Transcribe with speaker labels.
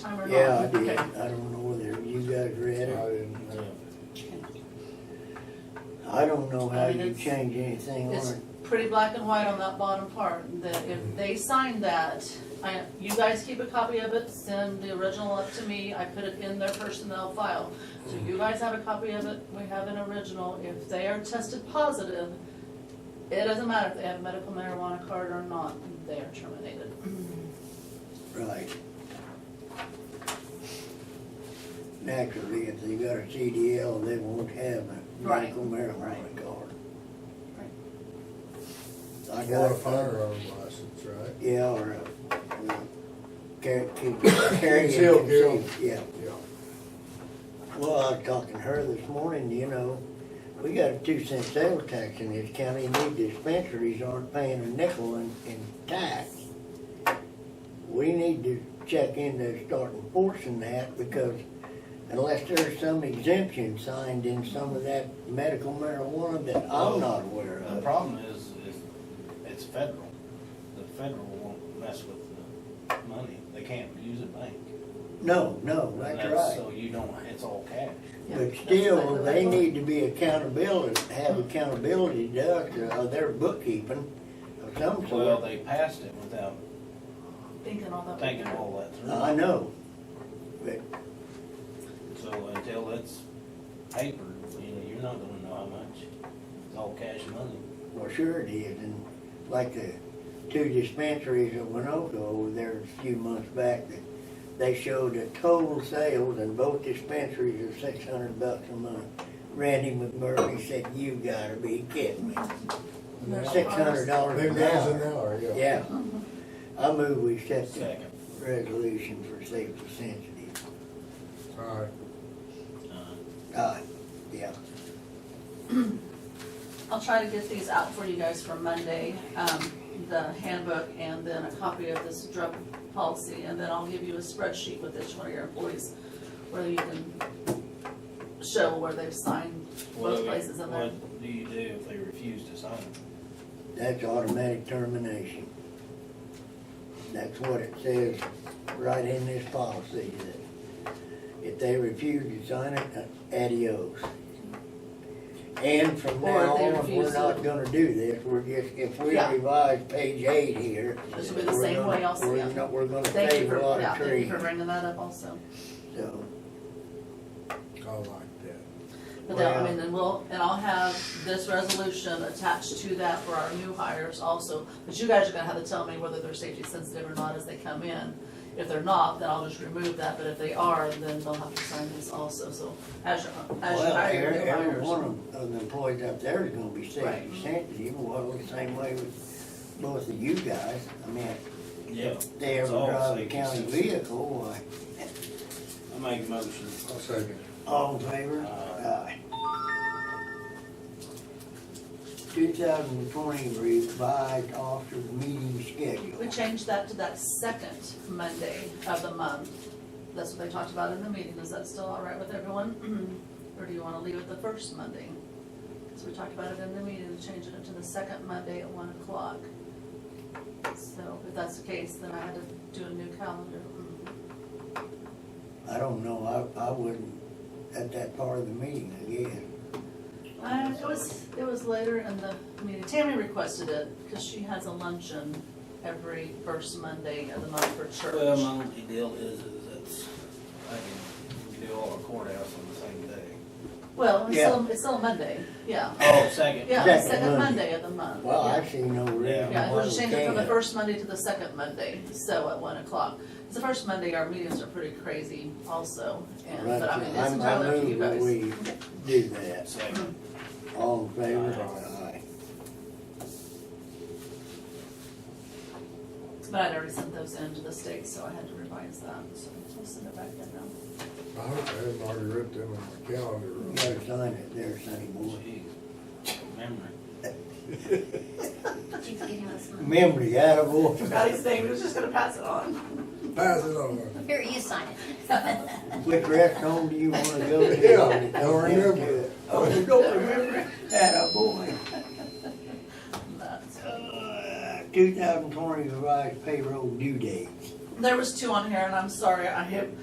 Speaker 1: time or not?
Speaker 2: Yeah, I did.
Speaker 1: Okay.
Speaker 2: I don't know whether you guys
Speaker 3: I
Speaker 2: read it.
Speaker 3: didn't, uh,
Speaker 2: I don't know how
Speaker 1: I mean,
Speaker 2: you
Speaker 1: it's-
Speaker 2: change anything on
Speaker 1: It's
Speaker 2: it.
Speaker 1: pretty black and white on that bottom part, that if they sign that, I, you guys keep a copy of it, send the original up to me, I put it in their personnel file. So you guys have a copy of it, we have an original, if they are tested positive, it doesn't matter if they have a medical marijuana card or not, they are terminated.
Speaker 2: Right. Naturally, if they got a CDL, they won't have a
Speaker 1: Right.
Speaker 2: medical marijuana
Speaker 1: Right.
Speaker 2: card.
Speaker 1: Right.
Speaker 2: I
Speaker 3: or
Speaker 2: got
Speaker 3: a
Speaker 2: a
Speaker 3: firearm license, right?
Speaker 2: Yeah, or a, uh, carry, carry.
Speaker 3: Concealed carry.
Speaker 2: Yeah.
Speaker 3: Yeah.
Speaker 2: Well, I was talking to her this morning, you know, we got a two cent sales tax in this county, and these dispensaries aren't paying a nickel in, in tax. We need to check into start enforcing that, because unless there's some exemption signed in some of that medical marijuana that I'm not aware
Speaker 4: The
Speaker 2: of.
Speaker 4: problem is, is it's federal. The federal won't mess with the money. They can't use a bank.
Speaker 2: No, no, that's
Speaker 4: So
Speaker 2: right.
Speaker 4: you don't, it's all cash.
Speaker 1: Yeah,
Speaker 2: But
Speaker 1: that's
Speaker 2: still,
Speaker 1: exactly what I
Speaker 2: they
Speaker 1: thought.
Speaker 2: need to be accountability, have accountability to us, uh, their bookkeeping of some sort.
Speaker 4: Well, they passed it without
Speaker 1: Thinking all that.
Speaker 4: thinking all that through.
Speaker 2: I know, but
Speaker 4: So until it's papered, you know, you're not gonna know how much. It's all cash money.
Speaker 2: well, sure it is, and like the two dispensaries at Winoka over there a few months back, that they showed the total sales in both dispensaries of six hundred bucks a month. Randy McMurphy said, you gotta be kidding me,
Speaker 1: There's
Speaker 2: six hundred dollars
Speaker 3: Big
Speaker 2: an
Speaker 3: guys an
Speaker 2: hour.
Speaker 3: hour, yeah.
Speaker 2: Yeah, I move we set the
Speaker 4: Second.
Speaker 2: resolution for safety sensitive.
Speaker 3: All right.
Speaker 4: Uh,
Speaker 2: Uh, yeah,
Speaker 1: I'll try to get these out for you guys for Monday, um, the handbook and then a copy of this drug policy. And then I'll give you a spreadsheet with each one of your employees where you can show where they've signed both
Speaker 4: what-
Speaker 1: places in there.
Speaker 4: What do you do if they refuse to sign?
Speaker 2: that's automatic termination. That's what it says right in this policy, that if they refuse to sign it, uh, adios. And from
Speaker 1: Or if
Speaker 2: now
Speaker 1: they
Speaker 2: on, we're
Speaker 1: refuse to-
Speaker 2: not gonna do this, we're just, if we
Speaker 1: Yeah.
Speaker 2: revise page eight here.
Speaker 1: This will be the
Speaker 2: we're
Speaker 1: same
Speaker 2: gonna-
Speaker 1: way also,
Speaker 2: we're
Speaker 1: yeah.
Speaker 2: not- We're gonna
Speaker 1: Thank you
Speaker 2: save
Speaker 1: for,
Speaker 2: a lot
Speaker 1: yeah,
Speaker 2: of
Speaker 1: thank you
Speaker 2: trees,
Speaker 1: for bringing that up also.
Speaker 2: so,
Speaker 3: I like that.
Speaker 1: But then, I
Speaker 2: Well-
Speaker 1: mean, then we'll, and I'll have this resolution attached to that for our new hires also. But you guys are gonna have to tell me whether they're safety sensitive or not as they come in. If they're not, then I'll just remove that, but if they are, then they'll have to sign this also, so as you, as you
Speaker 2: well,
Speaker 1: hire
Speaker 2: every,
Speaker 1: new
Speaker 2: every
Speaker 1: hires.
Speaker 2: one of- of the employees up there is gonna be
Speaker 1: Right.
Speaker 2: safety sensitive, well, the same way with both of you guys, I mean,
Speaker 4: Yeah,
Speaker 2: they ever
Speaker 4: It's all
Speaker 2: drive a
Speaker 4: safety
Speaker 2: county
Speaker 4: sensitive.
Speaker 2: vehicle, why,
Speaker 4: I make a motion.
Speaker 3: I'll second.
Speaker 2: all in favor?
Speaker 4: Aye.
Speaker 2: Two thousand and twenty revised officer meeting schedule.
Speaker 1: We changed that to that second Monday of the month. That's what they talked about in the meeting. Is that still all right with everyone? Or do you wanna leave it the first Monday? So we talked about it in the meeting, changing it to the second Monday at one o'clock. So if that's the case, then I had to do a new calendar. Mm-hmm.
Speaker 2: I don't know, I, I wouldn't, at that part of the meeting, I guess.
Speaker 1: Uh, it was, it was later in the meeting. Tammy requested it because she has a luncheon every first Monday of the month for church.
Speaker 4: Well, my only deal is, is that's, I can, we can do all our courthouse on the same day.
Speaker 1: Well, it's
Speaker 2: Yeah.
Speaker 1: still, it's still a Monday, yeah.
Speaker 4: Oh, second.
Speaker 1: Yeah,
Speaker 2: Second
Speaker 1: the second
Speaker 2: Monday.
Speaker 1: Monday of the month.
Speaker 2: Well,
Speaker 1: yeah.
Speaker 2: I see no reason
Speaker 1: Yeah,
Speaker 2: why
Speaker 1: we'll just
Speaker 2: we
Speaker 1: change it from the
Speaker 2: can't.
Speaker 1: first Monday to the second Monday, so at one o'clock. It's the first Monday, our meetings are pretty crazy also, and,
Speaker 2: Right,
Speaker 1: but I mean, it's
Speaker 2: I'm- I
Speaker 1: entirely up to you
Speaker 2: move that
Speaker 1: guys.
Speaker 2: we do that,
Speaker 4: Second.
Speaker 2: all in favor?
Speaker 4: Aye.
Speaker 2: Aye.
Speaker 1: But I'd already sent those in to the state, so I had to revise that, so I'll send it back in now.
Speaker 3: I hope I hadn't already written them on my calendar.
Speaker 2: You gotta sign it there, Sonny boy.
Speaker 4: Jeez, Memory.
Speaker 5: She's getting us money.
Speaker 2: Memory, attaboy.
Speaker 1: Forgot his name, he was just gonna pass it on.
Speaker 3: Pass it on.
Speaker 5: Here, you sign it.
Speaker 2: Which rest home do you wanna go to?
Speaker 3: Yeah, don't remember it.
Speaker 2: Oh, you don't remember? oh Attaboy.
Speaker 1: That's-
Speaker 2: Uh, 2020 revised payroll due dates.
Speaker 1: There was two on here, and I'm sorry, I have